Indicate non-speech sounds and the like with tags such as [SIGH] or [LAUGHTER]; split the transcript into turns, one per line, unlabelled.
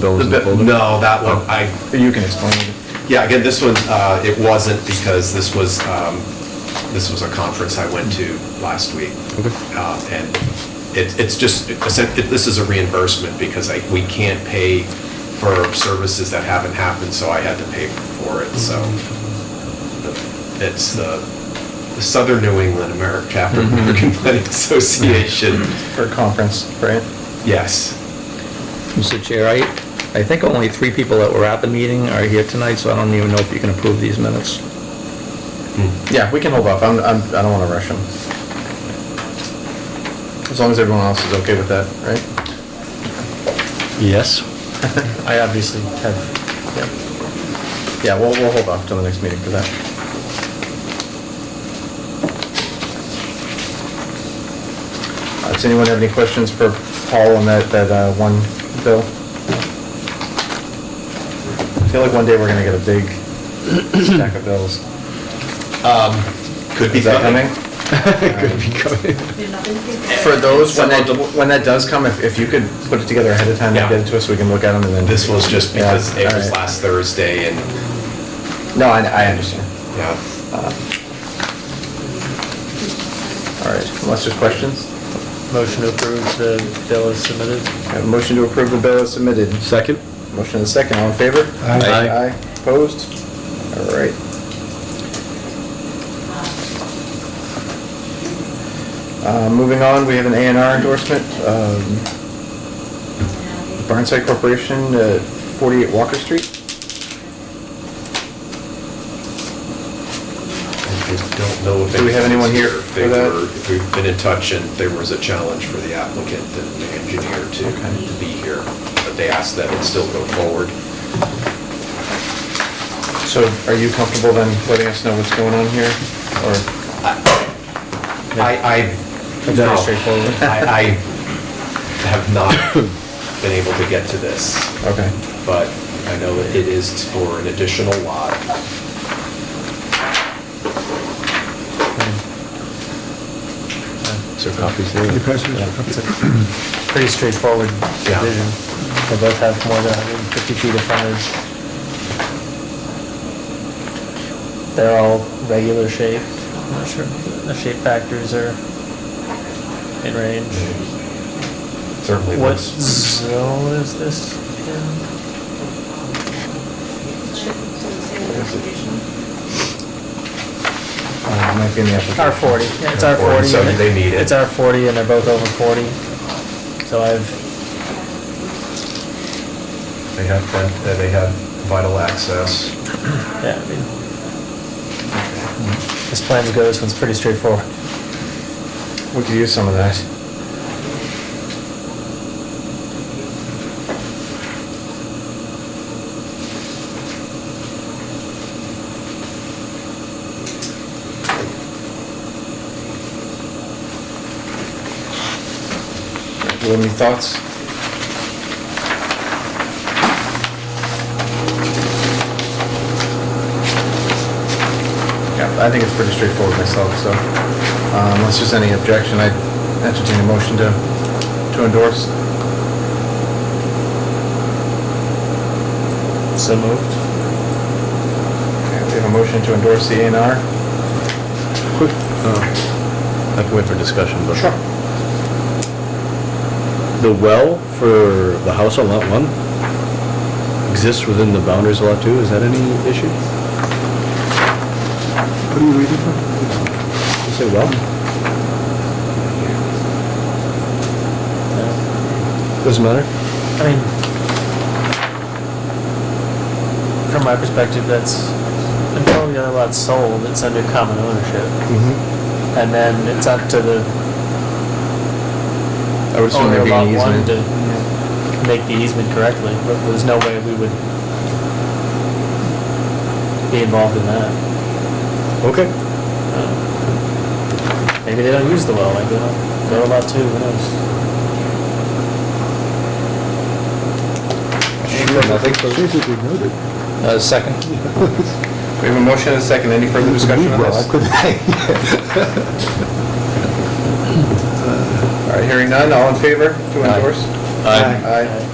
bills in the folder?
No, that one, I,
You can explain it.
yeah, again, this one, uh, it wasn't because this was, um, this was a conference I went to last week.
Okay.
Uh, And it- it's just, it's a- it- this is a reimbursement because I- we can't pay for services that haven't happened, so I had to pay for it, so.
Mm-hmm.
It's the the Southern New England American, Chapter
Mm-hmm.
of American [LAUGHS] Planning Association,
For conference, right?
yes.
Mr. Chair, I, I think only three people that were at the meeting are here tonight, so I don't even know if you can approve these minutes.
Yeah, we can hold off. I'm, I'm, I don't want to rush them. As long as everyone else is okay with that, right?
Yes.
[LAUGHS] I obviously have. Yeah, Yeah. we'll, we'll hold off till the next meeting for that. Uh, Does anyone have any questions for Paul on that, that uh, one bill? I feel like one day we're going to get a big stack of bills.
Could be
Is that coming?
coming. Could be coming.
For those, when that, when that does come, if, if you could put it together ahead of time and get it to us, we can look at them and then.
This was just
Yeah,
because it was
alright.
last Thursday and,
No, I, I understand. Uh,
yeah.
All right, unless there's questions?
Motion to approve the bill as submitted.
I have a motion to approve the bill as submitted.
Second?
Motion and a second, all in favor?
Aye.
Aye, opposed? All right. Uh, moving on, we have an A and R endorsement, um, Barnside Corporation, uh, forty-eight Walker Street.
I don't know if.
Do we have anyone here
if they
for that?
were- If we've been in touch and there was a challenge for the applicant and the engineer to,
Okay.
to be here, but they asked that it still go forward.
So are you comfortable then letting us know what's going on here? Or,
I, I.
That's
no.
very
[LAUGHS]
straightforward.
I, I have not been able to get to this,
okay,
but I know it is for an additional lot.
Is there copies there?
Pretty straightforward
Yeah.
division. They both have more than 150 feet of frontage. They're all regular shaped. I'm not sure, if the shape factors are in range.
Certainly.
What
was-
zone is this in?
uh, might be in the application.
R forty, yeah, it's R forty.
So they need it.
It's R forty and they're both over forty. So I've,
They have, front- uh, they have vital access.
yeah, I mean, as plans go, this one's pretty straightforward.
We could use some of that. Do you have any thoughts? Yeah, I think it's pretty straightforward myself, so uh, unless there's any objection, I entertain a motion to, to endorse.
So moved.
Okay, We have a motion to endorse the A and R.
Quick, uh, I can wait for discussion, but. The well for the house on lot one exists within the boundaries of lot two, is that any issue? What are you reading from? You say well? Doesn't matter?
I mean, from my perspective, that's, until the other lot's sold, it's under common ownership.
Mm-hmm.
And then it's up to the
I would assume
owner
there'd
of
be
lot
an
one
easement.
to make the easement correctly, but there's no way we would be involved in that.
Okay.
Maybe they don't use the well, like, they don't, they're allowed to, who knows?
Basically noted.
Uh, second.
We have a motion and a second. Any further discussion on
Well, I
this?
couldn't-
[LAUGHS] All right, hearing none. All in favor to endorse?
Aye.
Aye. Opposed?